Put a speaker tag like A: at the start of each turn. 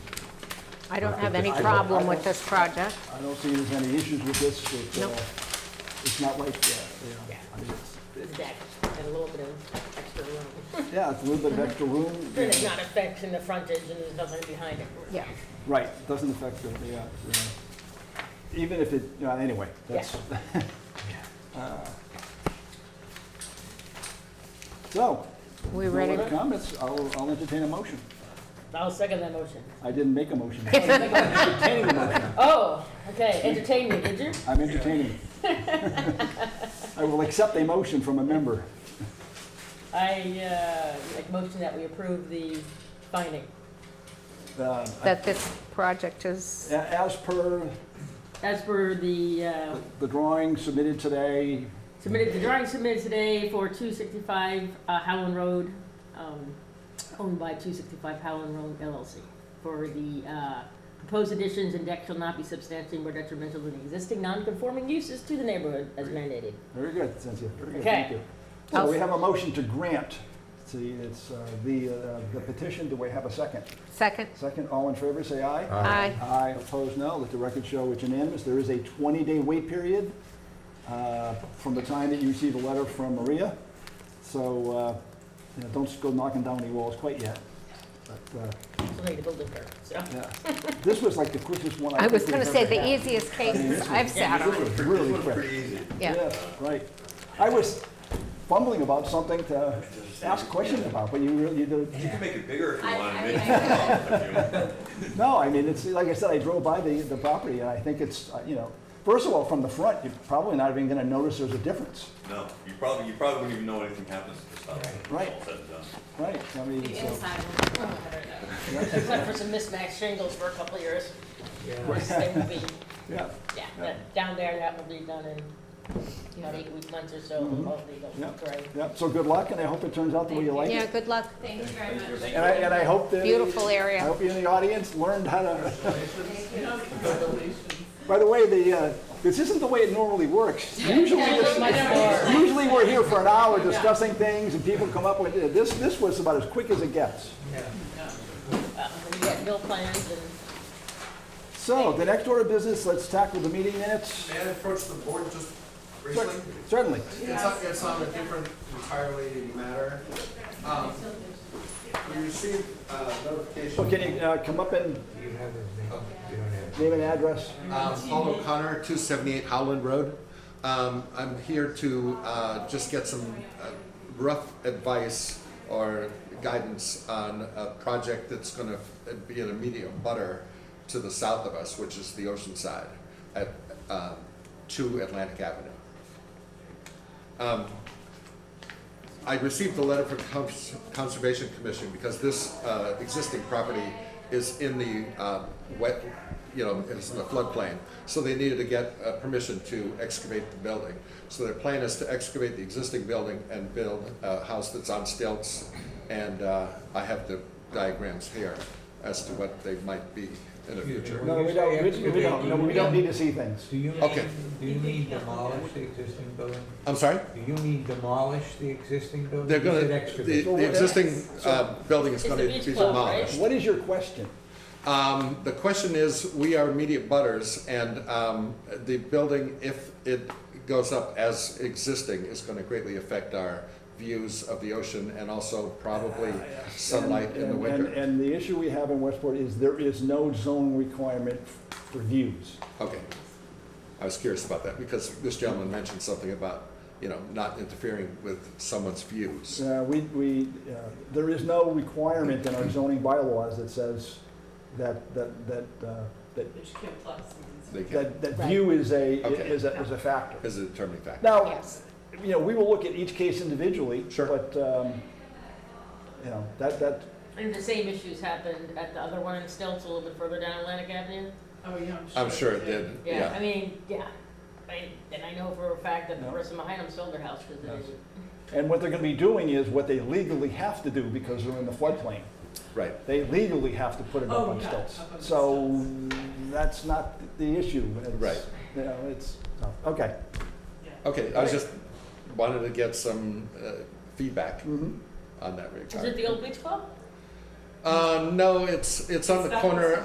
A: I don't have any
B: I don't-
A: problem
B: I
A: with
B: don't-
A: this project.
B: I don't see there's any issues with this. It, uh,
A: Nope.
B: It's not like, uh, you know, I mean,
C: Exactly, and a little bit of extra room.
B: it's- yeah, it's a little bit of extra room.
C: And it's not affecting the frontage and there's nothing behind it.
A: Yeah.
B: Right, doesn't affect the, the, uh, the- even if it, uh, anyway, that's. Uh, So,
A: We
B: no
A: ready?
B: other comments, I'll, I'll entertain a motion.
C: I'll second that motion.
B: I didn't make a motion.
C: Oh, okay, entertainment, did you?
B: I'm entertaining. I will accept a motion from a member.
C: I, uh, make motion that we approve the finding
B: Uh,
A: That this project is,
B: a- As per
C: as per the, uh,
B: the drawing submitted today,
C: submitted, the drawing submitted today for two sixty-five uh, Howland Road, um, owned by two sixty-five Howland Road LLC. For the uh, proposed additions and deck shall not be substantially more detrimental than existing non-conforming uses to the neighborhood as mandated.
B: very good, Cynthia, very good, thank
C: Okay.
B: you. So we have a motion to grant, see, it's uh, the, uh, the petition, do we have a second?
A: second?
B: Second, all in favor, say aye.
A: Aye.
B: Aye, opposed, no. Let the record show it's unanimous. There is a 20-day wait period uh, from the time that you receive a letter from Maria. So, uh, you know, don't go knocking down any walls quite yet. But, uh,
C: Still need to build it there, so.
B: yeah. This was like the quickest one I
A: I
B: think
A: was
B: we've
A: gonna say
B: ever
A: the
B: had.
A: easiest cases I've sat
D: This
A: on,
D: one's pre-
B: Really
D: this one's
B: quick.
D: pretty easy.
A: yeah.
B: Yes, right. I was fumbling about something to ask questions about, but you really, you did
D: You can make it bigger if you
E: I-
D: want
E: I
D: to. make
E: mean,
D: it
B: No, I mean, it's, like I said, I drove by the, the property, and I think it's, uh, you know, first of all, from the front, you're probably not even gonna notice there's a difference,
D: No, you probably, you probably wouldn't even know anything happens to this house.
B: Right.
D: All said and done.
B: right? I mean,
E: The
B: so,
E: inside looks a lot better though.
C: Except for some mismatched shingles for a couple of years. This thing will be,
B: yeah,
C: yeah, that- down there, that will be done in, you know, eight weeks, months or so, hopefully
B: Yeah.
C: they'll gray.
B: yeah, so good luck, and I hope it turns out the way you like
A: Yeah,
B: it.
A: good luck.
E: Thank you very much.
B: And I, and I hope that.
A: Beautiful area.
B: I hope you in the audience learned how to. By the way, the, uh, this isn't the way it normally works. Usually,
C: Much
B: this-
C: more.
B: usually we're here for an hour discussing things, and people come up with, this, this was about as quick as it gets.
C: Uh, We got bill plans and
B: So, the next order of business, let's tackle the meeting minutes.
F: May I approach the board just briefly?
B: Cer- Certainly.
F: It's on, it's on a different entirely matter. Um, We received uh,
B: So
F: notification.
B: can you uh, come up and name and address?
F: Um, Paul O'Connor, 278 Howland Road. Um, I'm here to uh, just get some uh, rough advice or guidance on a project that's going to be an immediate butter to the south of us, which is the Oceanside at um, 2 Atlantic Avenue. I received a letter from Cons- Conservation Commission because this uh, existing property is in the uh, wet, you know, it's in the floodplain. So they needed to get uh, permission to excavate the building. So their plan is to excavate the existing building and build a house that's on stilts. And uh, I have the diagrams here as to what they might be in the future.
B: No, we don't, we- we don't, no, we don't need to see things.
G: Do you need,
F: Okay.
G: do you need demolish the existing building?
F: I'm sorry?
G: Do you need demolish the existing building?
F: They're
G: You
F: gonna,
G: said
F: the
G: excavate.
F: the existing uh, building
C: It's
F: is
C: the
F: gonna be
C: beach club, right?
F: demolished.
B: What is your question?
F: Um, the question is, we are immediate butters, and, um, the building, if it goes up as existing, is gonna greatly affect our views of the ocean and also probably sunlight in
B: Ah,
F: the
B: And- and-
F: winter.
B: And the issue we have in Westport is there is no zone requirement for views.
F: Okay. I was curious about that, because this gentleman mentioned something about, you know, not interfering with someone's views.
B: Uh, We, we, uh, there is no requirement in our zoning bylaws that says that, that, that, uh, that,
F: They can,
B: that- that view is a,
F: Okay.
B: is a, is a factor.
F: is a determining factor.
B: Now,
A: Yes.
B: you know, we will look at each case individually.
F: Sure.
B: But, um, you know, that, that,
C: And the same issues happened at the other one in Stilts, a little bit further down Atlantic Avenue.
E: Oh, yeah,
F: I'm sure it did,
C: Yeah, I
F: yeah.
C: mean, yeah, I, and I know for a fact that the
B: Yeah.
C: person behind them sold their house because
B: Yes.
C: they,
B: and what they're gonna be doing is what they legally have to do because they're in the floodplain.
F: Right,
B: They legally have to put it up
E: Oh,
B: on
E: yeah,
B: stilts.
E: up on
B: So that's not the issue. It's,
F: Right.
B: You know, it's, so, okay.
F: okay, I was just, wanted to get some, uh, feedback
B: Mhm.
F: on that regard.
C: is it the old beach club?
F: Uh, no, it's, it's on the corner